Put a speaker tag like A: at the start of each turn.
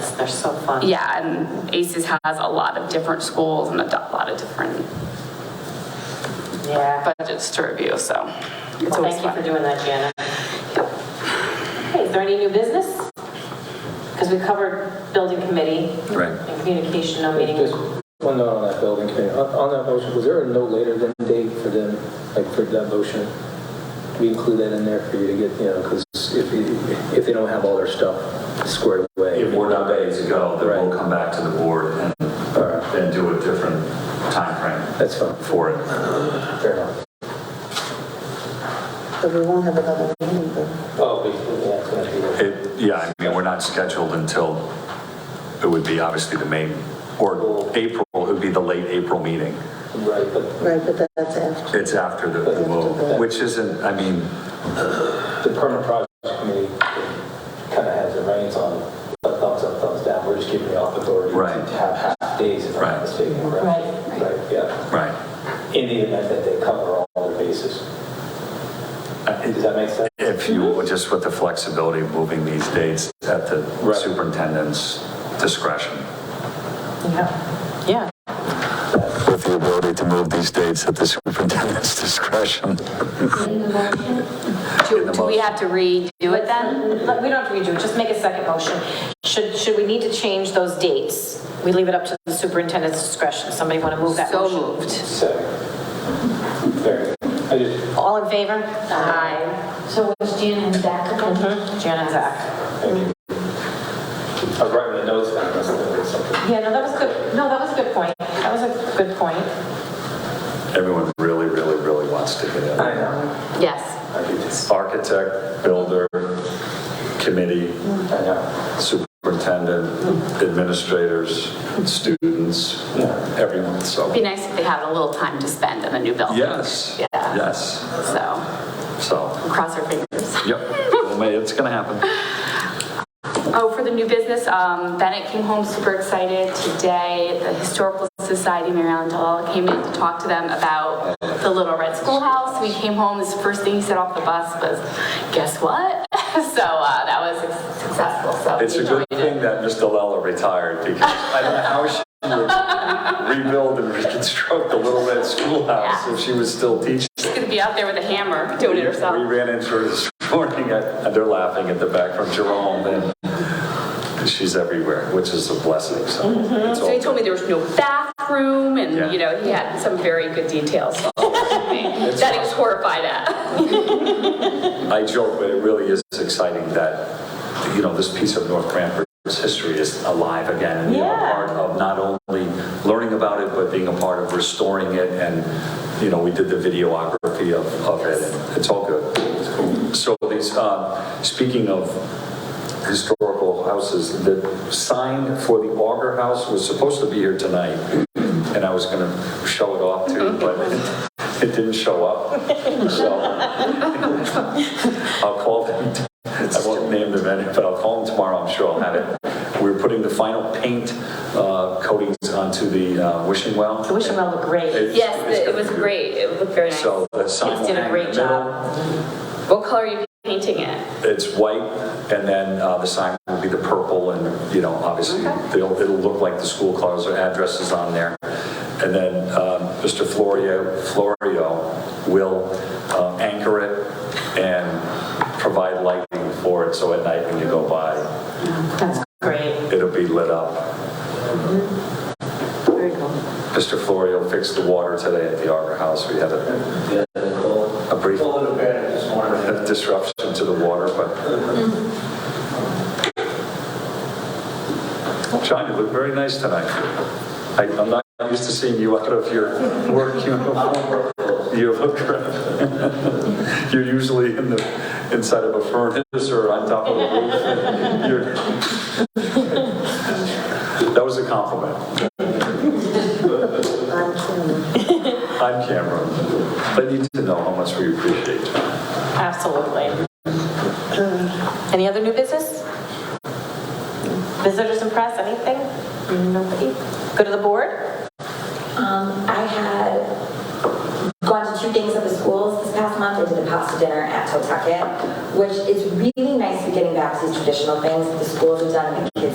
A: They're so fun.
B: Yeah, and ACES has a lot of different schools and a do- lot of different
A: Yeah.
B: budgets to review, so it's
A: Well,
B: always
A: thank you for
B: fun.
A: doing that, Jana. Okay, is there any new business? Because we covered building committee.
C: Right.
A: And communication, no meeting.
D: Just one note on that building committee, on on that motion, was there a no later than date for them, like for that motion? We include that in there for you to get, you know, because if, you- if they don't have all their stuff squared away.
C: If we're not ready to go, then we'll
D: Right.
C: come back to the board and then do a different timeframe
D: That's fine,
C: for it.
D: fair enough.
E: But we won't have another meeting, but.
D: Oh, yeah, it's gonna be.
C: It, yeah, I mean, we're not scheduled until, it would be obviously the main, or April, it would be the late April meeting.
D: Right, but
E: Right, but that's after.
C: It's after the, the vote, which isn't, I mean,
D: the permanent project committee kind of has the reins on thumbs up, thumbs down, we're just giving you all authority
C: Right.
D: to have half days if I'm
C: Right.
D: not mistaken, correct?
A: Right.
D: Right, yeah,
C: right.
D: in the event that they cover all their bases. Uh, Does that make sense?
C: If you, just with the flexibility of moving these dates at the
D: Right.
C: superintendent's discretion.
A: Yeah. Yeah.
C: With the ability to move these dates at the superintendent's discretion.
B: Do
C: In the
B: do we
C: motion.
B: have to redo it then?
A: Let- uh, We don't have to redo it, just make a second motion. Should, should we need to change those dates? We leave it up to the superintendent's discretion. Somebody want to move that
B: So
A: motion?
B: moved.
D: Second. Very good. I just,
A: All in favor? Aye.
F: So was Jan and Zach about?
A: Jan and Zach.
D: I was writing the notes down, I was looking at something.
A: Yeah, no, that was good, no, that was a good point. That was a good point.
C: Everyone really, really, really wants to get in.
D: know.
B: Yes.
D: I do just,
C: Architect, builder, committee,
D: I know.
C: superintendent, administrators, students, everyone, so.
B: It'd be nice if they had a little time to spend in the new building.
C: Yes,
B: Yeah.
C: yes,
B: So,
C: so,
B: cross our fingers.
C: yep, Well, may- it's going to happen.
B: Oh, for the new business, um, Bennett came home super excited today. The Historical Society, Mary Ellen Delala came in to talk to them about the Little Red Schoolhouse. We came home, his first thing he said off the bus was, guess what? So, uh, that was successful, so.
C: It's a good thing that Mr. Lella retired because I don't know how she would rebuild and reconstruct the Little Red Schoolhouse if she was still teaching.
B: She's gonna be out there with a hammer doing it
C: We
B: herself.
C: ran into her this morning, I- and they're laughing at the back from Jerome, and she's everywhere, which is a blessing, so. it's
B: Mm-hmm. So he
C: all-
B: told me there was no bathroom
C: Yeah.
B: and, you know, he had some very good details. so- That he was horrified at.
C: I joke, but it really is exciting that, you know, this piece of North Cranford's history is alive again. and being a
A: Yeah.
C: Part of not only learning about it, but being a part of restoring it. And, you know, we did the videography of, of it. and It's all good. It's cool. So these, uh, speaking of historical houses, the sign for the Auger House was supposed to be here tonight. And I was going to show it off to you, but it- it didn't show up. So I'll call them, I won't name them any, but I'll call them tomorrow, I'm sure I'll have it. We're putting the final paint uh, coatings onto the uh, wishing well.
A: The wishing well looked great.
C: It's-
B: Yes,
C: it's
B: it was
C: gonna be
B: great. It looked very
C: good.
B: nice.
C: So the sign
B: Kids
C: will
B: did a
C: hang in
B: great
C: the
B: job.
C: middle.
B: What color are you painting it?
C: It's white, and then uh, the sign will be the purple, and, you know, obviously, they'll- it'll look like the school colors or addresses on there. And then um, Mr. Florio, Florio will uh, anchor it and provide lighting for it, so at night when you go by,
A: Great.
C: it'll be lit up. Mr. Florio fixed the water today at the Arbor House. We had a a brief disruption to the water, but... John, you look very nice tonight. I- I'm not used to seeing you out of your work uniform. You look great. You're usually in the, inside of a furnace or on top of a roof. You're- That was a compliment.
E: I'm Kim.
C: I'm Cameron. I need to know how much we appreciate you.
A: Absolutely. Any other new business? Visitors and press, anything? Nobody? Go to the board?
F: Um, I had gone to two things at the schools this past month. I did a pasta dinner at Totucket, which is really nice to getting back to these traditional things that the schools have done and the kids